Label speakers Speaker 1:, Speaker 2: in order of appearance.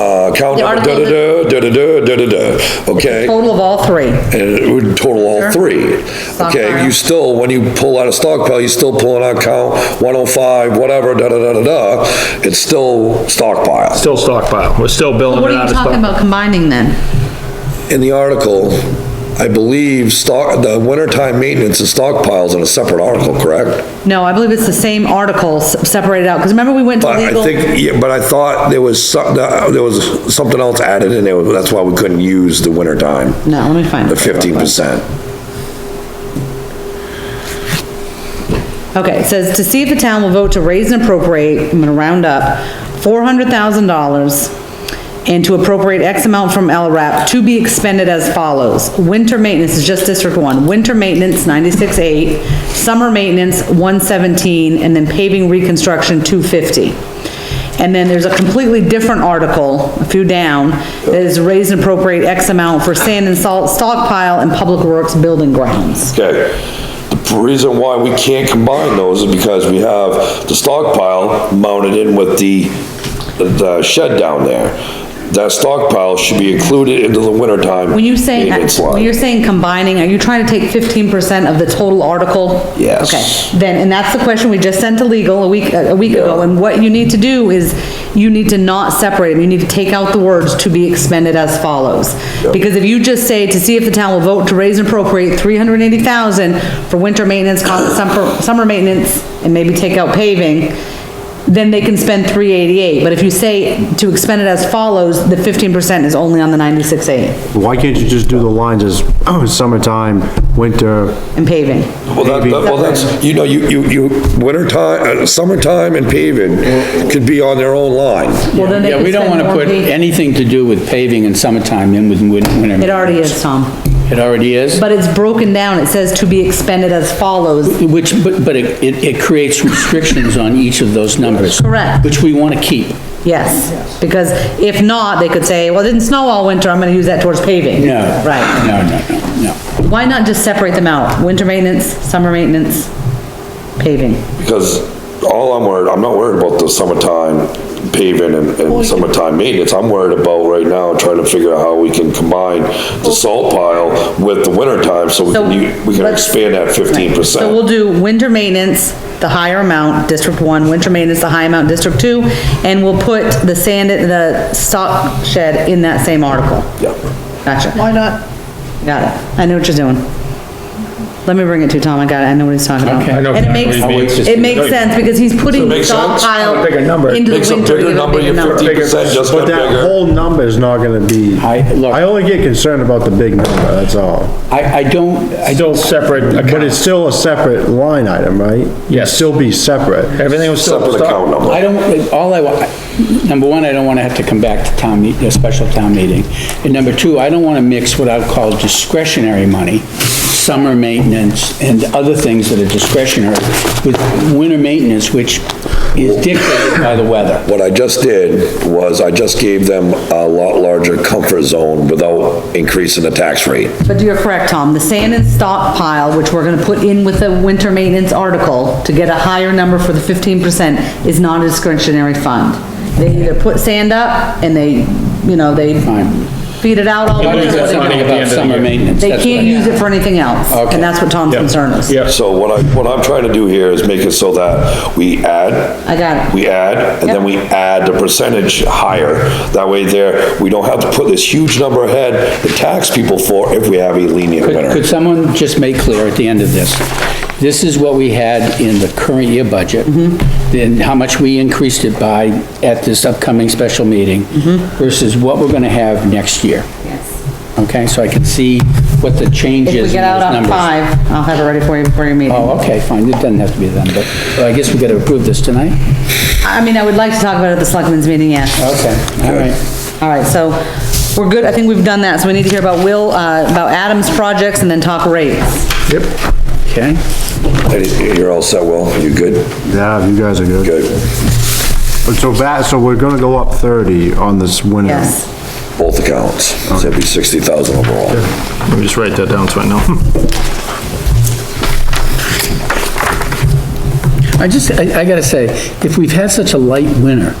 Speaker 1: account
Speaker 2: The
Speaker 1: Uh, number,
Speaker 2: article
Speaker 1: da-da-da, da-da-da, da-da-da, okay?
Speaker 2: Total of all three.
Speaker 1: And it would total all three. Okay,
Speaker 2: Stockpile.
Speaker 1: you still, when you pull out a stockpile, you still pull out count 105, whatever, da-da-da-da-da, it's still stockpile.
Speaker 3: Still stockpile, we're still building
Speaker 2: What
Speaker 3: it
Speaker 2: are
Speaker 3: out
Speaker 2: you
Speaker 3: of
Speaker 2: talking
Speaker 3: stock.
Speaker 2: about combining then?
Speaker 1: In the article, I believe stock, the wintertime maintenance and stockpiles in a separate article, correct?
Speaker 2: No, I believe it's the same articles separated out, because remember we went to
Speaker 1: But I
Speaker 2: legal?
Speaker 1: think, yeah, but I thought there was some, there was something else added in there, that's why we couldn't use the winter time,
Speaker 2: No, let me find it.
Speaker 1: the fifteen percent.
Speaker 2: Okay, it says, to see if the town will vote to raise and appropriate, I'm gonna round up, four hundred thousand dollars, and to appropriate X amount from LRAP to be expended as follows. Winter maintenance is just District One, winter maintenance, ninety-six eight, summer maintenance, one seventeen, and then paving reconstruction, two fifty. And then there's a completely different article, a few down, that is raise and appropriate X amount for sand and salt stockpile and public works building grounds.
Speaker 1: Okay. The reason why we can't combine those is because we have the stockpile mounted in with the, the shed down there. That stockpile should be included into the wintertime.
Speaker 2: When you say,
Speaker 1: maintenance line.
Speaker 2: when you're saying combining, are you trying to take fifteen percent of the total article?
Speaker 1: Yes.
Speaker 2: Okay, then, and that's the question we just sent to legal a week, a week ago,
Speaker 1: Yeah.
Speaker 2: and what you need to do is, you need to not separate them, you need to take out the words "to be expended as follows." Because if you just say, "To see if the town will vote to raise and appropriate three hundred and eighty thousand for winter maintenance, con- summer, summer maintenance, and maybe take out paving," then they can spend three eighty-eight, but if you say, "To expend it as follows," the fifteen percent is only on the ninety-six eight.
Speaker 4: Why can't you just do the lines as summertime, winter?
Speaker 2: and paving.
Speaker 1: Well, that, that- well, that's, you know, you, you, you, wintertime, uh, summertime and paving could be on their own line.
Speaker 2: Well, then they
Speaker 5: Yeah,
Speaker 2: could
Speaker 5: we don't
Speaker 2: spend
Speaker 5: want to
Speaker 2: more
Speaker 5: put
Speaker 2: paving.
Speaker 5: anything to do with paving in summertime in with win- winter.
Speaker 2: It already is, Tom,
Speaker 5: It already is,
Speaker 2: but it's broken down, it says to be expended as follows.
Speaker 5: which, but, but it, it it creates restrictions on each of those numbers.
Speaker 2: Correct.
Speaker 5: Which we want to keep.
Speaker 2: Yes, because if not, they could say, well, it didn't snow all winter, I'm gonna use that towards paving.
Speaker 5: No.
Speaker 2: Right,
Speaker 5: No, no, no, no.
Speaker 2: why not just separate them out, winter maintenance, summer maintenance, paving?
Speaker 1: Because all I'm worried, I'm not worried about the summertime paving and, and summertime maintenance. I'm worried about right now, trying to figure out how we can combine the salt pile with the wintertime, so we
Speaker 2: So
Speaker 1: can, u- we can
Speaker 2: let's-
Speaker 1: expand that fifteen
Speaker 2: So we'll
Speaker 1: percent.
Speaker 2: do winter maintenance, the higher amount, District One, winter maintenance, the high amount, District Two, and we'll put the sand, the stock shed in that same article. Gotcha. Why not? Got it. I know what you're doing. Let me bring it to you, Tom. I got it. I know what he's talking about.
Speaker 5: Okay. I
Speaker 3: know
Speaker 2: And it
Speaker 3: exactly
Speaker 2: makes,
Speaker 3: what he means.
Speaker 2: it makes sense because he's putting
Speaker 1: Does it make sense?
Speaker 2: stockpile
Speaker 3: Bigger number.
Speaker 2: into the
Speaker 1: Makes a
Speaker 2: winter to
Speaker 1: bigger
Speaker 2: give a
Speaker 1: number,
Speaker 2: bigger
Speaker 1: your
Speaker 2: number.
Speaker 1: fifteen percent just
Speaker 4: But
Speaker 1: went
Speaker 4: that
Speaker 1: bigger.
Speaker 4: whole number is not gonna be,
Speaker 5: I- look-
Speaker 4: I only get concerned about the big number, that's all.
Speaker 5: I, I don't, I
Speaker 3: Still
Speaker 5: don't,
Speaker 3: separate
Speaker 4: But it's
Speaker 3: accounts.
Speaker 4: still a separate line item, right? It'd
Speaker 3: Yes.
Speaker 4: Still be separate.
Speaker 3: Everything was still
Speaker 1: Separate account
Speaker 3: stock.
Speaker 1: number.
Speaker 5: I don't, all I, wa- number one, I don't want to have to come back to town, meet- a special town meeting. And number two, I don't want to mix what I would call discretionary money, summer maintenance and other things that are discretionary, with winter maintenance, which is dictated by the weather.
Speaker 1: What I just did was I just gave them a lot larger comfort zone without increasing the tax rate.
Speaker 2: But you're correct, Tom. The sand and stockpile, which we're gonna put in with the winter maintenance article to get a higher number for the fifteen percent, is not a discretionary fund. They either put sand up and they, you know, they
Speaker 5: Fine.
Speaker 2: feed it out all
Speaker 3: It
Speaker 2: winter.
Speaker 3: loses
Speaker 2: but
Speaker 3: its
Speaker 2: they
Speaker 3: money
Speaker 2: don't-
Speaker 3: at the end
Speaker 5: About
Speaker 3: of the
Speaker 5: summer
Speaker 3: year.
Speaker 5: maintenance.
Speaker 2: They
Speaker 5: that's
Speaker 2: can't
Speaker 5: what I-
Speaker 2: use it for anything else,
Speaker 5: Okay.
Speaker 2: and that's what Tom's concern is.
Speaker 3: Yeah.
Speaker 1: So what I, what I'm trying to do here is make it so that we add.
Speaker 2: I got it.
Speaker 1: We add, and then we add the percentage higher. That way there, we don't have to put this huge number ahead to tax people for if we have a lenient
Speaker 5: Could could
Speaker 1: winter.
Speaker 5: someone just make clear at the end of this, this is what we had in the current year budget, then how much we increased it by at this upcoming special meeting versus what we're gonna have next year? Yes. Okay, so I can see what the change
Speaker 2: If we
Speaker 5: is in
Speaker 2: get out
Speaker 5: those
Speaker 2: on
Speaker 5: numbers.
Speaker 2: five, I'll have it ready for you before your meeting.
Speaker 5: Oh, okay, fine, it doesn't have to be then, but well, I guess we gotta approve this tonight?
Speaker 2: I mean, I would like to talk about it at the selectmen's meeting, yeah.
Speaker 5: Okay, all right.
Speaker 2: All right, so we're good. I think we've done that, so we need to hear about Will, uh, about Adam's projects and then talk rates.
Speaker 5: Okay,
Speaker 1: Hey, You're all set, Will? You good?
Speaker 4: Yeah, you guys are good.
Speaker 1: Good.
Speaker 4: But So that, so we're gonna go up thirty on this winter.
Speaker 2: Yes.
Speaker 1: Both accounts. So it'd be 60,000 overall.
Speaker 3: Let me just write that down so I know.
Speaker 5: I just, I I gotta say, if we've had such a light winter,